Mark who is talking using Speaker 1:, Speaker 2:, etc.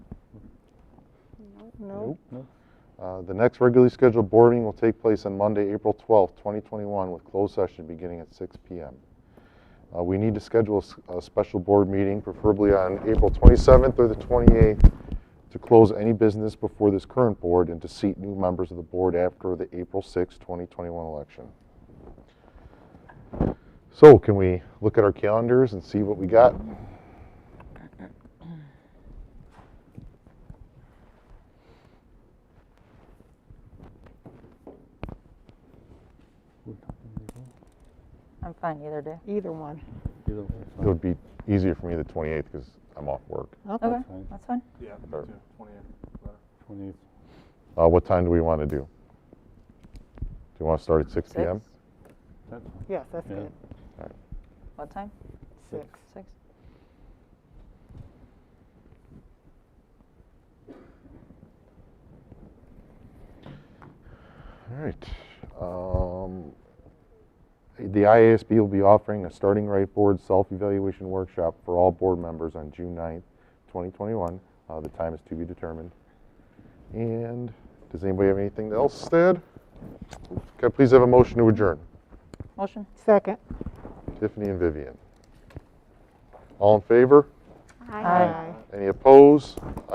Speaker 1: No.
Speaker 2: Nope. Uh, The next regularly scheduled board meeting will take place on Monday, April 12th, 2021, with closed session beginning at 6 PM. Uh, We need to schedule a s- a special board meeting, preferably on April 27th or the 28th, to close any business before this current board and to seat new members of the board after the April 6th, 2021 election. So can we look at our calendars and see what we got?
Speaker 3: I'm fine either day.
Speaker 1: Either one.
Speaker 2: It would be easier for me the 28th because I'm off work.
Speaker 1: Okay.
Speaker 3: Okay,
Speaker 4: fine.
Speaker 3: that's fine.
Speaker 5: Yeah, me
Speaker 2: Or-
Speaker 5: too. 28th. better.
Speaker 4: Twenty-eighth.
Speaker 2: Uh, What time do we want to do? Do you want to start at 6 PM?
Speaker 3: Six?
Speaker 4: That's fine.
Speaker 1: Yes, that's
Speaker 4: Yeah.
Speaker 1: good.
Speaker 3: What time?
Speaker 1: Six.
Speaker 3: Six?
Speaker 2: All right. Um, The IASB will be offering a starting right board self-evaluation workshop for all board members on June 9th, 2021. Uh, The time is to be determined. And does anybody have anything else to add? Could I please have a motion to adjourn?
Speaker 3: Motion?
Speaker 1: Second.
Speaker 2: Tiffany and Vivian. All in favor?
Speaker 3: Aye.
Speaker 2: Any opposed?